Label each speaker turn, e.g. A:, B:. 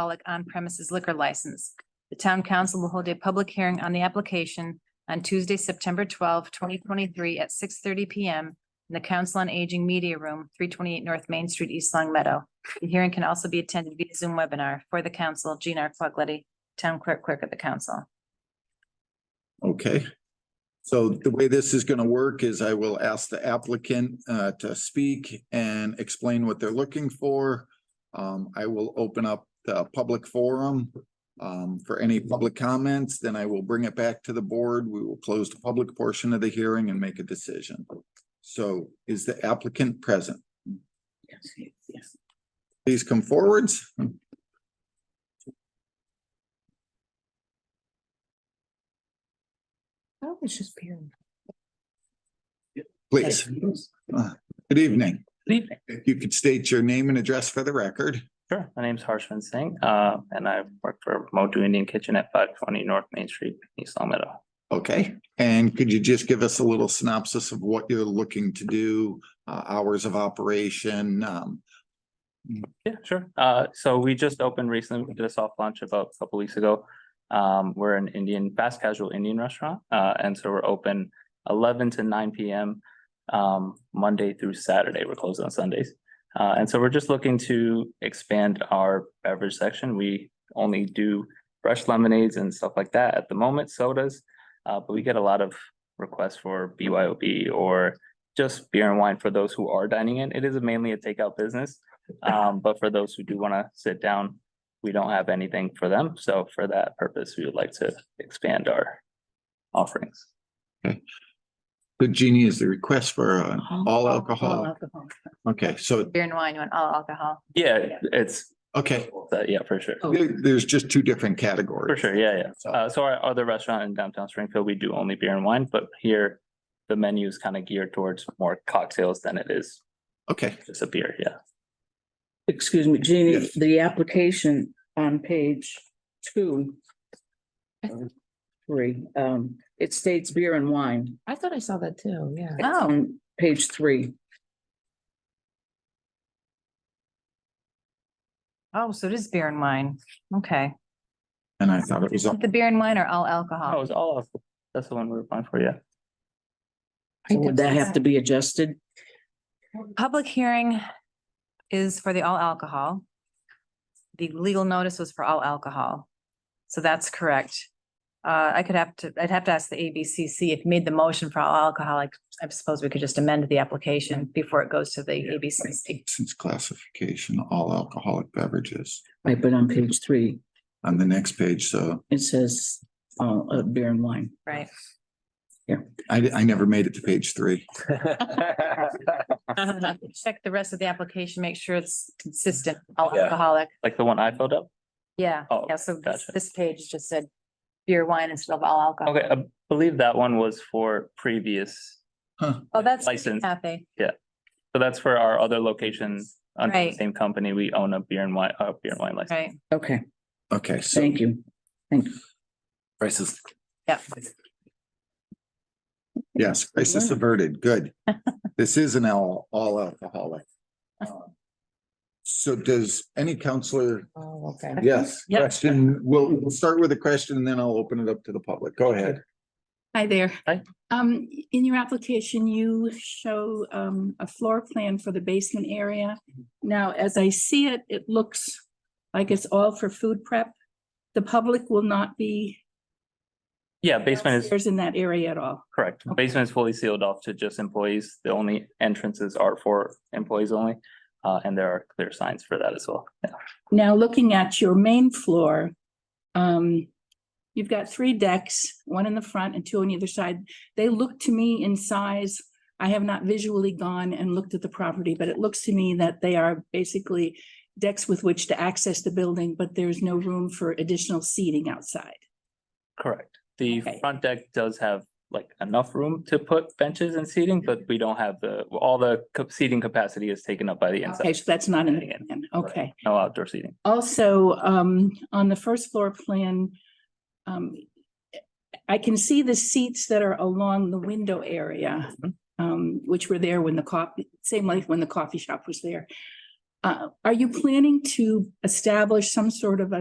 A: alcoholic on-premises liquor license. The town council will hold a public hearing on the application on Tuesday, September 12, twenty twenty-three at six thirty P M in the Council on Aging Media Room, three twenty-eight North Main Street, East Long Meadow. The hearing can also be attended via Zoom webinar for the council, Jean R. Quaglity, Town Clerk, Clerk of the Council.
B: Okay. So the way this is gonna work is I will ask the applicant uh to speak and explain what they're looking for. Um, I will open up the public forum um for any public comments, then I will bring it back to the board. We will close the public portion of the hearing and make a decision. So is the applicant present? Please come forwards.
C: Oh, it's just Karen.
B: Please, good evening. You could state your name and address for the record.
D: Sure, my name's Harshman Singh, uh, and I work for Motu Indian Kitchen at five twenty North Main Street, East Long Meadow.
B: Okay, and could you just give us a little synopsis of what you're looking to do, uh, hours of operation, um,
D: Yeah, sure. Uh, so we just opened recently, we did a soft launch about a couple weeks ago. Um, we're an Indian, fast casual Indian restaurant, uh, and so we're open eleven to nine PM. Um, Monday through Saturday, we're closed on Sundays. Uh, and so we're just looking to expand our beverage section. We only do fresh lemonades and stuff like that at the moment, sodas. Uh, but we get a lot of requests for BYOB or just beer and wine for those who are dining in. It is mainly a takeout business. Um, but for those who do want to sit down, we don't have anything for them. So for that purpose, we would like to expand our offerings.
B: the genie is the request for uh,
C: Oh,
B: all alcohol.
C: alcohol.
B: Okay, so,
A: Beer and wine, you want all alcohol?
D: Yeah, it's,
B: okay,
D: that- yeah, for sure.
C: Oh.
B: there- there's just two different categories.
D: For sure, yeah, yeah.
B: So-
D: Uh, so our other restaurant in downtown Springfield, we do only beer and wine, but here the menu is kind of geared towards more cocktails than it is
B: Okay,
D: just a beer, yeah.
C: Excuse me, Jeannie,
B: Yes.
C: the application on page two. uh, Three, um, it states beer and wine.
E: I thought I saw that too, yeah.
C: It's
A: Oh.
C: on Page three,
A: Oh, so it is beer and wine. Okay.
B: and I thought it was,
A: The beer and wine or all
D: Oh,
A: alcohol?
D: it's all, of- that's the one we're applying for, yeah.
C: So would that have to be adjusted?
A: Public hearing is for the all alcohol. The legal notice was for all alcohol. So that's correct. Uh, I could have to, I'd have to ask the ABCC if made the motion for all alcoholic. I suppose we could just amend the application before it goes to the ABCC.
B: since classification, all alcoholic beverages
C: Right, but on page three,
B: on the next page, so
C: it says, uh, uh, beer and wine.
A: Right.
B: I, I never made it to page three.
D: Uh-huh.
A: Uh, Check the rest of the application, make sure it's consistent, all
D: Yeah.
A: alcoholic.
D: Like the one I filled up?
A: Yeah,
D: Oh,
A: yeah, so this,
D: gotcha.
A: this page just said beer, wine instead of all alcohol.
D: Okay, I believe that one was for previous,
A: Oh, that's
D: License.
A: Cafe.
D: so that's for our other location under the
A: Right.
D: same company. We own a beer and wine, uh, beer and wine license.
A: Right,
C: Okay,
B: Okay, so
C: thank you.
D: Prices.
A: yeah.
B: Yes, crisis
C: Yeah.
B: averted, good. This is an all, all alcoholic. Um, So does any counselor,
E: Oh, okay.
B: yes,
A: Yeah.
B: question, we'll, we'll start with a question and then I'll open it up to the public. Go ahead.
F: Hi there.
D: Hi.
F: Um, in your application, you show um a floor plan for the basement area.
D: Mm-hmm.
F: Now, as I see it, it looks like it's all for food prep. The public will not be
D: Yeah, basement is
F: downstairs in that area at all.
D: correct. Basement is fully sealed off to just employees. The only entrances are for employees only. Uh, and there are clear signs for that as well. Yeah.
F: Now, looking at your main floor, um, you've got three decks, one in the front and two on either side. They look to me in size, I have not visually gone and looked at the property, but it looks to me that they are basically decks with which to access the building, but there's no room for additional seating outside.
D: Correct. The
F: Okay.
D: front deck does have like enough room to put benches and seating, but we don't have the, all the co- seating capacity is taken up by the
F: Okay,
D: inside.
F: so that's not in the
D: Right.
F: plan. Okay.
D: No outdoor seating.
F: Also, um, on the first floor plan, um, I can see the seats that are along the window area, um, which were there when the coffee, same like when the coffee shop was there. Uh, are you planning to establish some sort of a